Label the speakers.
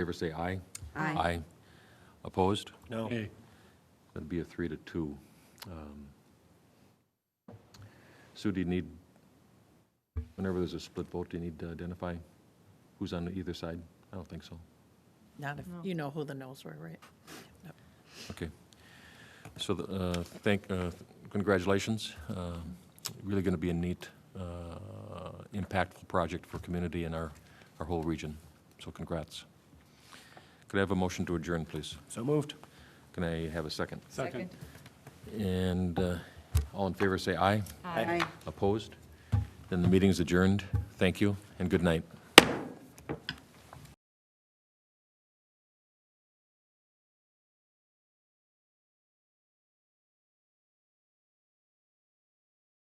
Speaker 1: favor say aye.
Speaker 2: Aye.
Speaker 1: Opposed?
Speaker 3: No.
Speaker 1: That'd be a three to two. Um, Sue, do you need, whenever there's a split vote, do you need to identify who's on either side? I don't think so.
Speaker 4: Not if, you know who the no's were, right?
Speaker 1: Okay. So, the, uh, thank, uh, congratulations. Um, Really going to be a neat, uh, impactful project for community and our, our whole region. So congrats. Could I have a motion to adjourn, please?
Speaker 3: So moved.
Speaker 1: Can I have a second?
Speaker 2: Second.
Speaker 1: And uh, all in favor, say aye.
Speaker 3: Aye.
Speaker 1: Opposed? Then the meeting's adjourned. Thank you, and good night.